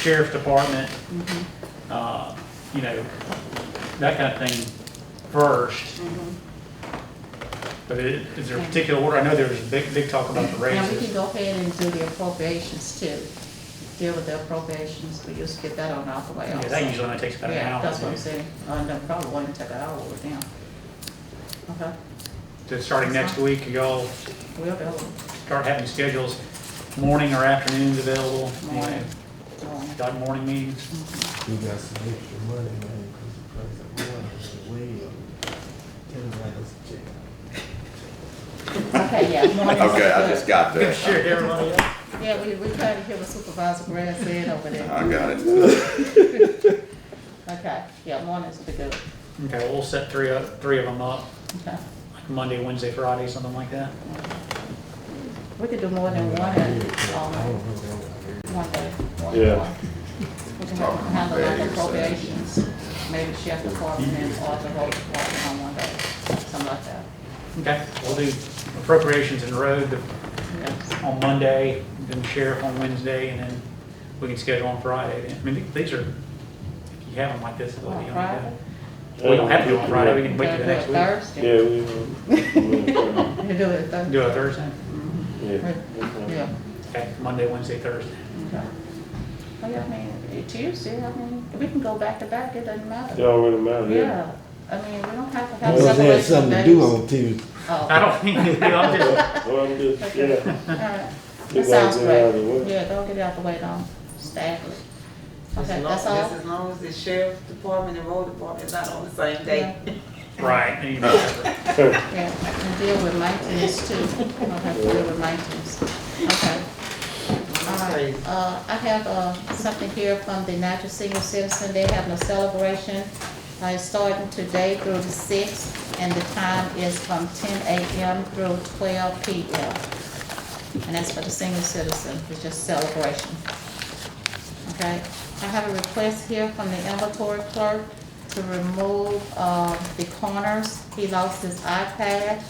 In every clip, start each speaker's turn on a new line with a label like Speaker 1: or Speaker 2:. Speaker 1: sheriff's department,
Speaker 2: Mm-hmm.
Speaker 1: uh, you know, that kind of thing first.
Speaker 2: Mm-hmm.
Speaker 1: But i- is there a particular order? I know there was big, big talk about the
Speaker 2: Now, we can
Speaker 1: raises.
Speaker 2: go ahead and do the appropriations too, deal with the appropriations, we used to get that on out the way
Speaker 1: Yeah,
Speaker 2: also.
Speaker 1: that usually only takes about an
Speaker 2: Yeah,
Speaker 1: hour.
Speaker 2: that's what I'm saying, uh, no, probably wouldn't take an hour with them. Okay,
Speaker 1: So Starting next week, y'all
Speaker 2: we'll go,
Speaker 1: start having schedules, morning or afternoons available, you know,
Speaker 2: morning, morning.
Speaker 1: done morning meetings.
Speaker 3: We got some extra money, man, because the price of oil is way up. Ten dollars a check.
Speaker 2: Okay, yeah, morning. is
Speaker 4: Okay, I
Speaker 2: good.
Speaker 4: just got
Speaker 1: Good
Speaker 4: that.
Speaker 1: shit, everybody.
Speaker 2: Yeah, we, we tried to hear what Supervisor Grant said over there.
Speaker 4: I got it.
Speaker 2: Okay, yeah, mornings would be good,
Speaker 1: Okay, well, we'll set three, up- three of them up,
Speaker 2: okay.
Speaker 1: like Monday, Wednesday, Friday, something like that.
Speaker 2: We could do more than one, um, one day.
Speaker 5: Yeah.
Speaker 2: We can have handle like
Speaker 3: uh,
Speaker 2: appropriations, maybe sheriff department and or the whole department on one day, something like that.
Speaker 1: Okay, we'll do appropriations and road the-
Speaker 2: Yes.
Speaker 1: on Monday, then sheriff on Wednesday, and then we can schedule on Friday. then. I mean, th- these are, if you have them like this, they'll be
Speaker 2: On
Speaker 1: on
Speaker 2: Friday?
Speaker 1: that. We don't have to do it on Friday, we can wait
Speaker 2: Gotta
Speaker 1: till the
Speaker 2: do it
Speaker 1: next week.
Speaker 2: Thursday.
Speaker 5: Yeah, we will. we will,
Speaker 2: You do it Thursday.
Speaker 1: Do it Thursday?
Speaker 5: Yeah.
Speaker 2: Yeah.
Speaker 1: Okay, Monday, Wednesday, Thursday.
Speaker 2: okay. Well, yeah, I mean, Tuesday, I mean, we can go back to back, it doesn't
Speaker 5: It
Speaker 2: matter.
Speaker 5: don't really matter, yeah.
Speaker 2: Yeah, I mean, we don't have to have
Speaker 3: Well, if they had
Speaker 2: separation
Speaker 3: something to
Speaker 2: days.
Speaker 3: do on Tuesday.
Speaker 2: Oh,
Speaker 1: I don't think, I'm just,
Speaker 5: Well, I'm just,
Speaker 2: Okay.
Speaker 5: yeah.
Speaker 2: all right.
Speaker 5: Get
Speaker 2: That sounds
Speaker 5: that out of the
Speaker 2: great.
Speaker 5: way.
Speaker 2: Yeah, don't get it out the way, don't stagger it.
Speaker 6: As
Speaker 2: Okay,
Speaker 6: long-
Speaker 2: that's all?
Speaker 6: just As long as the sheriff's department and road department is not on the same day.
Speaker 1: right, you know,
Speaker 2: Yeah, and deal with maintenance too. I'll have to deal with maintenance. Okay. All right. Uh, I have, uh, something here from the Natchez Senior Citizen. They having a celebration. Uh, it's starting today through the sixth, and the time is from ten AM through twelve PM. And that's for the senior citizen, it's just celebration. Okay, I have a request here from the inventory clerk to remove, uh, the corners. He lost his iPad,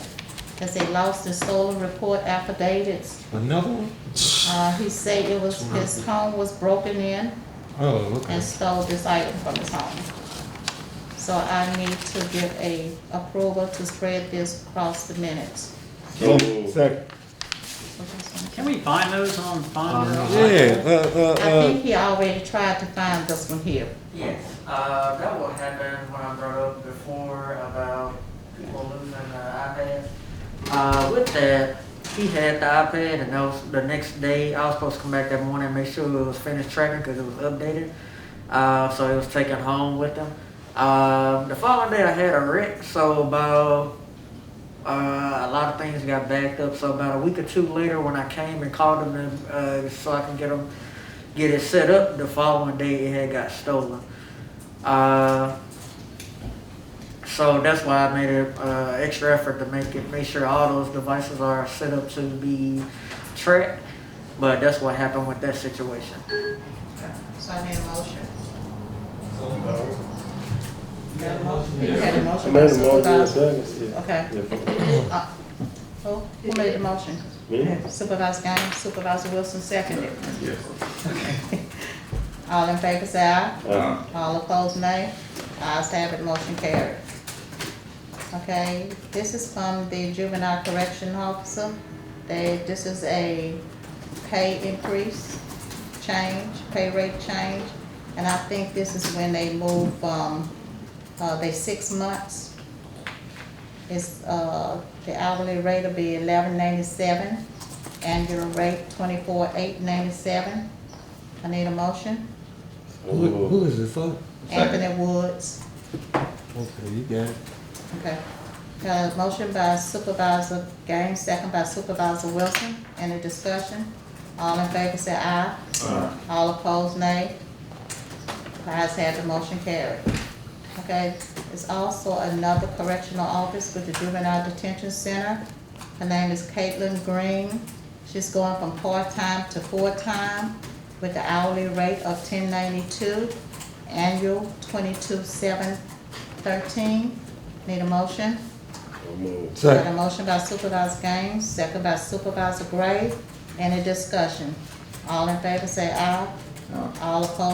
Speaker 2: because they lost the stolen report affidavits.
Speaker 3: Another one?
Speaker 2: Uh, he said it was, his home was broken in
Speaker 3: Oh, okay.
Speaker 2: and stole this item from his home. So I need to give a approval to spread this across the minutes.
Speaker 5: So,
Speaker 3: Second.
Speaker 1: can we find those on Finder?
Speaker 3: Yeah, uh,
Speaker 2: I
Speaker 3: uh,
Speaker 2: think he already tried to find this one here.
Speaker 6: Yes, uh, that will happen when I brought up before about people losing their iPads. Uh, with that, he had the iPad and that was the next day, I was supposed to come back that morning and make sure it was finished tracking because it was updated. Uh, so it was taken home with him. Um, the following day I had a wreck, so about uh, a lot of things got backed up. So about a week or two later, when I came and called them to, uh, so I can get them get it set up, the following day it had got stolen. Uh, so that's why I made an uh, extra effort to make it make sure all those devices are set up to be tracked. But that's what happened with that situation.
Speaker 2: So I made a motion. You had a motion? You had a
Speaker 5: I
Speaker 2: motion.
Speaker 5: made a
Speaker 2: by
Speaker 5: motion,
Speaker 2: Supervisor-
Speaker 5: second, yeah.
Speaker 2: Okay.
Speaker 5: Yeah.
Speaker 2: Uh, Who, who made the motion?
Speaker 5: Me?
Speaker 2: Supervisor Gaines, Supervisor Wilson seconded.
Speaker 4: Yes.
Speaker 2: All in favor say aye.
Speaker 4: Um,
Speaker 5: Uh,
Speaker 2: All opposed, nay. Ayes have it, motion carried. Okay, this is from the juvenile correction officer. They, this is a pay increase, change, pay rate change. And I think this is when they move from, uh, they six months. It's, uh, the hourly rate will be eleven ninety-seven, annual rate twenty-four eight ninety-seven. I need a motion.
Speaker 3: who, who is it for?
Speaker 4: Second.
Speaker 2: Anthony Woods.
Speaker 3: Okay, you got it.
Speaker 2: Okay. Uh, motion by Supervisor Gaines, second by Supervisor Wilson. Any discussion? All in favor say aye. Aye. All opposed, nay. The ayes have the motion carried. Okay, there's also another correctional office with the Juvenile Detention Center. Her name is Caitlin Green. She's going from part-time to full-time with the hourly rate of ten ninety-two, annual twenty-two seven thirteen. Need a motion? Got a
Speaker 3: Second.
Speaker 2: motion by Supervisor Gaines, second by Supervisor Gray. Any discussion? All in favor say aye. All opposed?